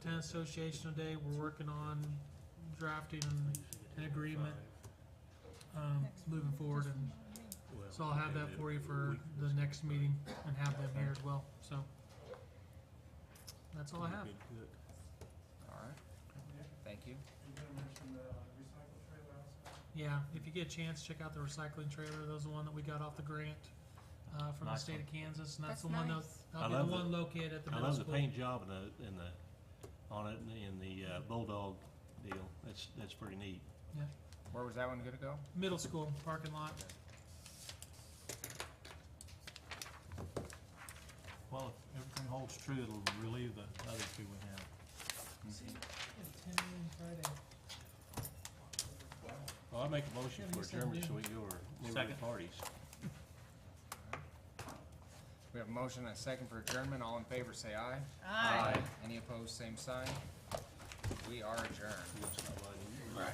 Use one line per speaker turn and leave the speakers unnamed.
Association today, we're working on drafting and an agreement, um, moving forward, and so I'll have that for you for the next meeting and have them here as well, so. That's all I have.
Alright, thank you.
Yeah, if you get a chance, check out the recycling trailer, those are the one that we got off the grant, uh, from the
Nice
state of Kansas, and that's
That's
the one that,
nice.
that'll
I
be
love
the
the-
one located at the
I
middle
love the
school.
paint job and the, and the, on it, and the uh, bulldog deal, that's, that's pretty neat.
Where was that one gonna go?
Middle school parking lot,
Well, if everything holds true, it'll relieve the other two we have.
Well, I make a motion
Yeah,
for
you said
adjournment,
do.
so we go over, move to
Second.
parties.
We have a motion and a second for adjournment, all in favor say aye.
Aye.
Any opposed, same sign. We are adjourned.